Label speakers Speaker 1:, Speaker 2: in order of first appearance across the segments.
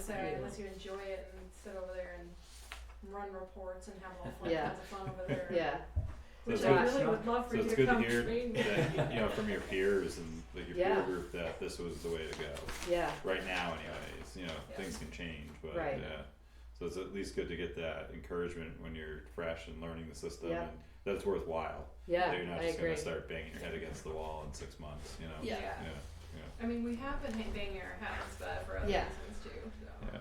Speaker 1: necessary
Speaker 2: Yeah.
Speaker 1: unless you enjoy it and sit over there and run reports and have all fun,
Speaker 3: Yeah.
Speaker 1: kinds of fun over there.
Speaker 3: Yeah.
Speaker 1: Which
Speaker 3: it's
Speaker 1: I
Speaker 3: good-
Speaker 1: really would love for
Speaker 2: So
Speaker 1: you
Speaker 2: it's
Speaker 1: to
Speaker 2: good to
Speaker 1: come
Speaker 2: hear
Speaker 1: train me.
Speaker 2: that, you know, from your peers and like your
Speaker 3: Yeah.
Speaker 2: peer group that this was the way to go.
Speaker 3: Yeah.
Speaker 2: Right now anyways, you know,
Speaker 1: Yeah.
Speaker 2: things can change, but yeah.
Speaker 3: Right.
Speaker 2: So it's at least good to get that encouragement when you're fresh and learning the system
Speaker 3: Yeah.
Speaker 2: and that it's worthwhile.
Speaker 3: Yeah.
Speaker 2: That you're not
Speaker 3: I
Speaker 2: just
Speaker 3: agree.
Speaker 2: gonna start banging your head against the wall in six months, you know?
Speaker 3: Yeah.
Speaker 1: Yeah. I mean, we have been ha- banging our heads, but for other
Speaker 3: Yeah.
Speaker 1: reasons too. So.
Speaker 2: Yeah.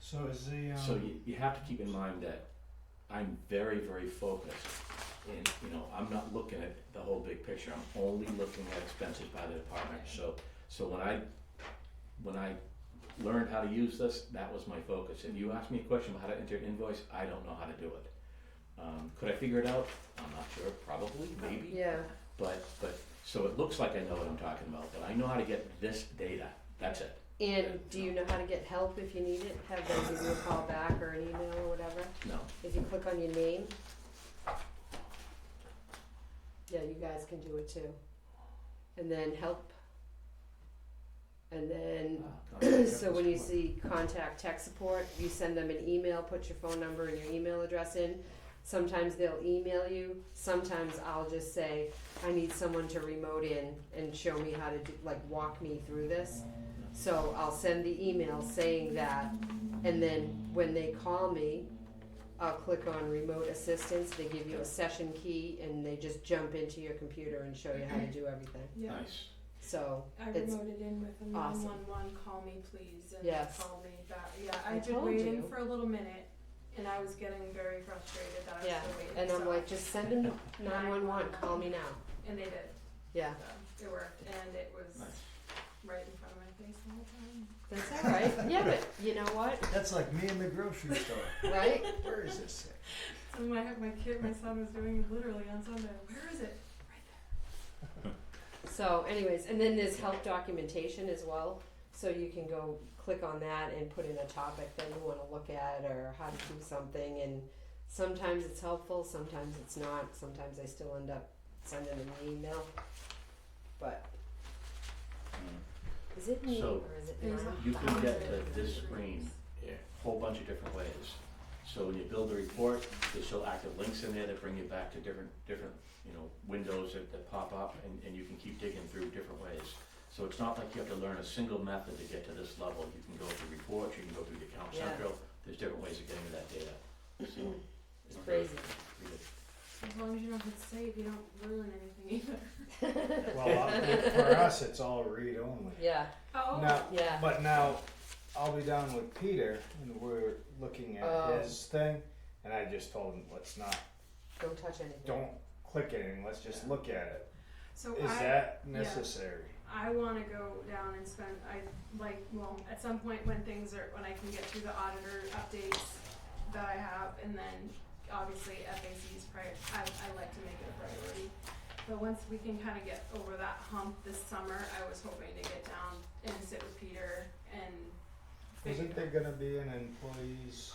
Speaker 4: So is the, um.
Speaker 5: So you, you have to keep in mind that I'm very, very focused. And, you know, I'm not looking at the whole big picture, I'm only looking at expenses by the department, so, so when I, when I learned how to use this, that was my focus. If you ask me a question about how to enter an invoice, I don't know how to do it. Um, could I figure it out? I'm not sure, probably, maybe.
Speaker 3: Yeah.
Speaker 5: But, but, so it looks like I know what I'm talking about, but I know how to get this data, that's it.
Speaker 3: And do you know how to get help if you need it? Have them give you a call back or an email or whatever?
Speaker 5: No,
Speaker 3: If you click on your name. Yeah, you guys can do it too. And then help. And then
Speaker 5: uh,
Speaker 3: so when you see contact tech support, you send them an email, put your phone number and your email address in. Sometimes they'll email you. Sometimes I'll just say, I need someone to remote in and show me how to do, like walk me through this. So I'll send the email saying that, and then when they call me, I'll click on remote assistance. They give you a session key and they just jump into your computer and show you how to do everything.
Speaker 1: Yeah.
Speaker 5: nice.
Speaker 3: So
Speaker 1: I
Speaker 3: It's
Speaker 1: remoted in with a nine
Speaker 3: awesome.
Speaker 1: one one, call me please, and
Speaker 3: Yes.
Speaker 1: call me back, yeah,
Speaker 3: I
Speaker 1: I did
Speaker 3: told
Speaker 1: wait in
Speaker 3: you.
Speaker 1: for a little minute, and I was getting very frustrated that I was
Speaker 3: Yeah,
Speaker 1: still waiting, so.
Speaker 3: and I'm like, just send them nine one one. Call me now.
Speaker 1: And they did,
Speaker 3: Yeah.
Speaker 1: so it worked, and it was
Speaker 5: Nice.
Speaker 1: right in front of my face the whole time.
Speaker 3: That's all right. Yeah, but you know what?
Speaker 4: That's like me in the grocery store.
Speaker 3: Right?
Speaker 4: Where is this at?
Speaker 1: So my, my kid, my son was doing it literally on Sunday, where is it?
Speaker 3: So, anyways, and then there's help documentation as well. So you can go click on that and put in a topic that you want to look at or how to do something. And sometimes it's helpful, sometimes it's not. Sometimes I still end up sending them an email. But
Speaker 5: Mm.
Speaker 3: is it me
Speaker 5: So-
Speaker 3: or is it
Speaker 1: There's
Speaker 3: not?
Speaker 1: a
Speaker 5: You can get to
Speaker 1: hundred
Speaker 5: this
Speaker 1: different
Speaker 5: screen
Speaker 1: groups.
Speaker 5: a whole bunch of different ways. So when you build a report, there's still active links in there that bring you back to different, different, you know, windows that, that pop up and, and you can keep digging through different ways. So it's not like you have to learn a single method to get to this level. You can go through reports, you can go through the account
Speaker 3: Yeah.
Speaker 5: central, there's different ways of getting to that data. So,
Speaker 3: It's
Speaker 5: okay,
Speaker 3: crazy.
Speaker 5: read it.
Speaker 1: As long as you don't hit save, you don't ruin anything either.
Speaker 4: Well, I'll- for us, it's all read only.
Speaker 3: Yeah,
Speaker 1: Oh.
Speaker 4: Now,
Speaker 3: yeah.
Speaker 4: but now, I'll be down with Peter, and we're looking at
Speaker 3: Oh.
Speaker 4: his thing, and I just told him, let's not,
Speaker 3: Don't touch anything.
Speaker 4: don't click anything, let's just look at it.
Speaker 1: So
Speaker 4: Is
Speaker 1: I,
Speaker 4: that necessary?
Speaker 1: I want to go down and spend. I like well at some point when things are when I can get through the auditor updates that I have, and then obviously FACs prior. I, I like to make it a priority. But once we can kind of get over that hump this summer, I was hoping to get down and sit with Peter and. figure-
Speaker 4: Isn't there gonna be an employees?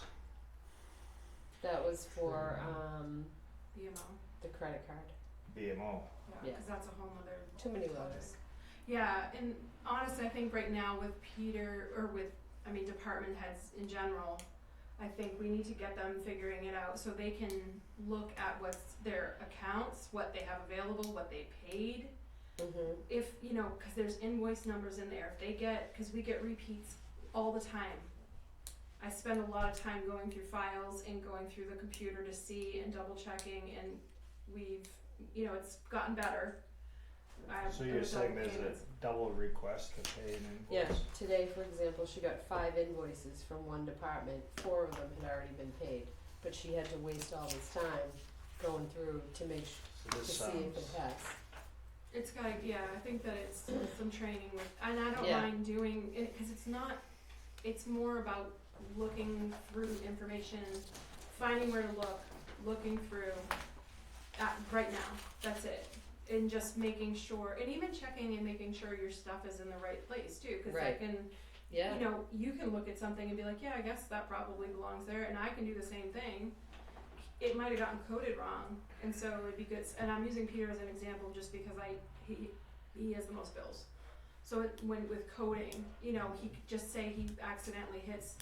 Speaker 3: That was for um,
Speaker 1: BMO?
Speaker 3: the credit card.
Speaker 4: BMO.
Speaker 1: Yeah,
Speaker 3: Yeah.
Speaker 1: because that's a whole nother.
Speaker 3: Too many
Speaker 1: topic.
Speaker 3: letters.
Speaker 1: Yeah, and honestly, I think right now with Peter, or with, I mean, department heads in general, I think we need to get them figuring it out so they can look at what's their accounts, what they have available, what they paid.
Speaker 3: Mm-hmm.
Speaker 1: If, you know, because there's invoice numbers in there, if they get, because we get repeats all the time. I spend a lot of time going through files and going through the computer to see and double checking and we've, you know, it's gotten better. I-
Speaker 4: So you're
Speaker 1: I'm
Speaker 4: saying
Speaker 1: double
Speaker 4: there's a
Speaker 1: payments.
Speaker 4: double request to pay an
Speaker 3: Yeah,
Speaker 4: invoice?
Speaker 3: today, for example, she got five invoices from one department, four of them had already been paid, but she had to waste all this time going through to make, s-
Speaker 4: So
Speaker 3: to
Speaker 4: this
Speaker 3: see if it
Speaker 4: sounds,
Speaker 3: has.
Speaker 1: It's got, yeah, I think that it's some training with, and I don't
Speaker 3: Yeah.
Speaker 1: mind doing it because it's not, it's more about looking through information, finding where to look, looking through, at, right now, that's it. And just making sure, and even checking and making sure your stuff is in the right place too, because I
Speaker 3: Right.
Speaker 1: can,
Speaker 3: Yeah,
Speaker 1: you know, you can look at something and be like, yeah, I guess that probably belongs there, and I can do the same thing. It might have gotten coded wrong, and so it'd be good. And I'm using Peter as an example just because I he he has the most bills, So it- when with coding, you know, he could just say he accidentally hits